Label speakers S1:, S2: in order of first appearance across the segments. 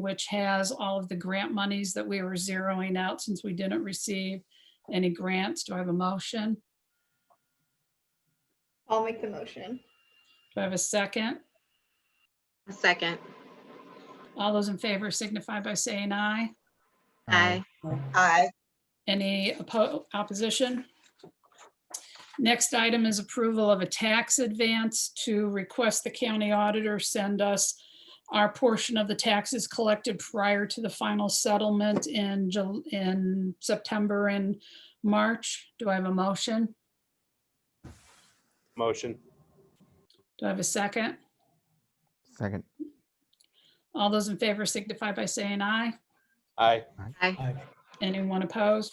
S1: which has all of the grant monies that we were zeroing out since we didn't receive any grants. Do I have a motion?
S2: I'll make the motion.
S1: Do I have a second?
S3: A second.
S1: All those in favor signify by saying aye.
S3: Aye.
S4: Aye.
S1: Any oppo- opposition? Next item is approval of a tax advance to request the county auditor send us our portion of the taxes collected prior to the final settlement in, Jul- in September and March. Do I have a motion?
S5: Motion.
S1: Do I have a second?
S6: Second.
S1: All those in favor signify by saying aye.
S5: Aye.
S1: Anyone opposed?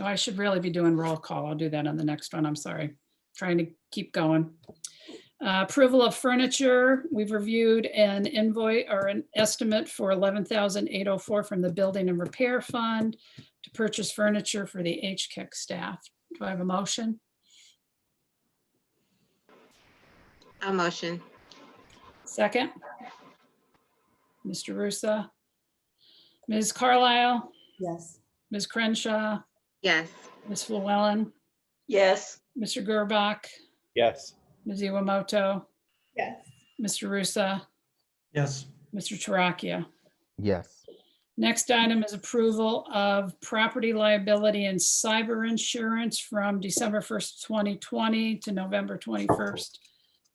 S1: Oh, I should really be doing roll call. I'll do that on the next one. I'm sorry. Trying to keep going. Uh, Approval of furniture. We've reviewed an invoice or an estimate for $11,804 from the Building and Repair Fund to purchase furniture for the HCIC staff. Do I have a motion?
S3: A motion.
S1: Second? Mr. Russo? Ms. Carlisle?
S4: Yes.
S1: Ms. Crenshaw?
S3: Yes.
S1: Ms. Llewellyn?
S4: Yes.
S1: Mr. Gerbach?
S5: Yes.
S1: Ms. Iwamoto?
S2: Yes.
S1: Mr. Rusa,
S7: Yes.
S1: Mr. Toracchio.
S6: Yes.
S1: Next item is approval of property liability and cyber insurance from December 1st, 2020 to November 21st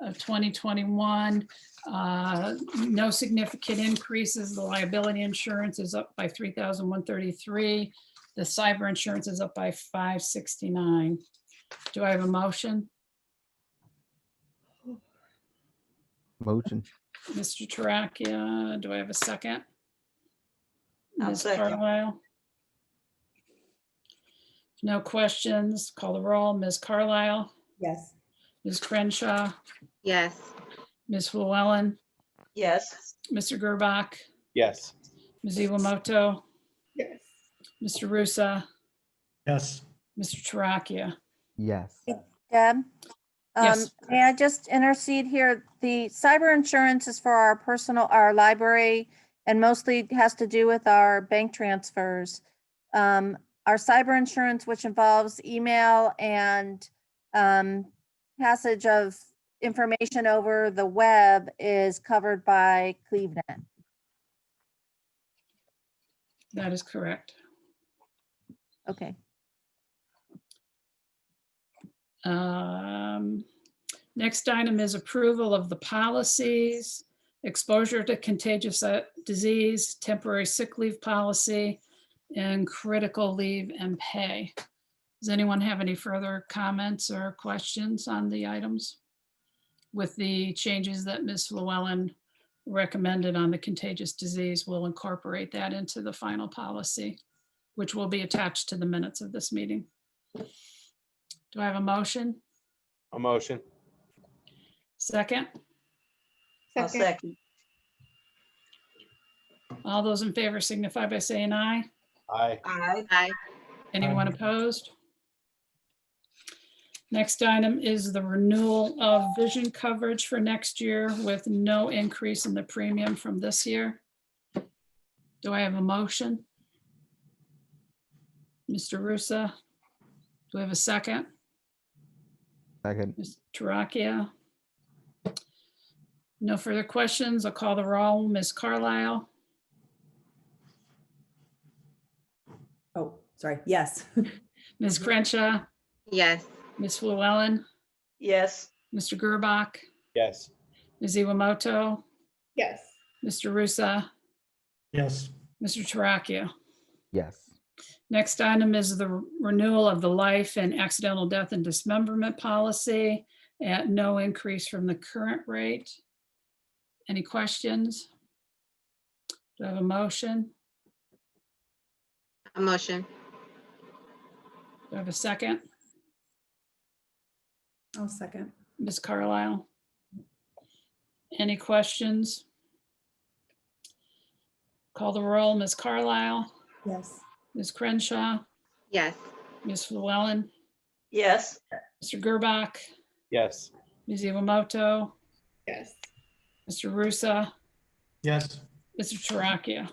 S1: of 2021. Uh, No significant increases. The liability insurance is up by 3,133. The cyber insurance is up by 569. Do I have a motion?
S6: Motion.
S1: Mr. Toracchio, do I have a second?
S4: I'll
S1: Ms.
S4: second.
S1: Carlisle? No questions. Call the roll. Ms. Carlisle,
S4: Yes.
S1: Ms. Crenshaw,
S3: Yes.
S1: Ms. Llewellyn,
S4: Yes.
S1: Mr. Gerbach,
S5: Yes.
S1: Ms. Iwamoto,
S2: Yes.
S1: Mr. Rusa,
S7: Yes.
S1: Mr. Toracchio.
S6: Yes.
S8: Deb? um,
S1: Yes.
S8: May I just intercede here? The cyber insurance is for our personal, our library, and mostly has to do with our bank transfers. Um, Our cyber insurance, which involves email and um, passage of information over the web, is covered by Cleveland.
S1: That is correct.
S8: Okay.
S1: Um, Next item is approval of the policies, exposure to contagious uh, disease, temporary sick leave policy, and critical leave and pay. Does anyone have any further comments or questions on the items? With the changes that Ms. Llewellyn recommended on the contagious disease, we'll incorporate that into the final policy, which will be attached to the minutes of this meeting. Do I have a motion?
S5: A motion.
S1: Second,
S4: I'll
S2: Second.
S4: second.
S1: all those in favor signify by saying aye.
S5: Aye.
S4: Aye.
S3: Aye.
S1: Anyone
S7: Aye.
S1: opposed? Next item is the renewal of vision coverage for next year with no increase in the premium from this year. Do I have a motion? Mr. Rusa? Do I have a second?
S6: Second.
S1: Ms. Toracchio? No further questions. I'll call the roll. Ms. Carlisle?
S9: Oh, sorry. Yes.
S1: Ms. Crenshaw?
S3: Yes.
S1: Ms. Llewellyn,
S4: Yes.
S1: Mr. Gerbach,
S5: Yes.
S1: Ms. Iwamoto,
S2: Yes.
S1: Mr. Rusa,
S7: Yes.
S1: Mr. Toracchio.
S6: Yes.
S1: Next item is the renewal of the life and accidental death and dismemberment policy at no increase from the current rate. Any questions? Do I have a motion?
S3: A motion.
S1: Do I have a second?
S9: I'll second.
S1: Ms. Carlisle? Any questions? Call the roll. Ms. Carlisle,
S9: Yes.
S1: Ms. Crenshaw,
S3: Yes.
S1: Ms. Llewellyn,
S4: Yes.
S1: Mr. Gerbach,
S5: Yes.
S1: Ms. Iwamoto,
S2: Yes.
S1: Mr. Rusa,
S7: Yes.
S1: Mr. Toracchio?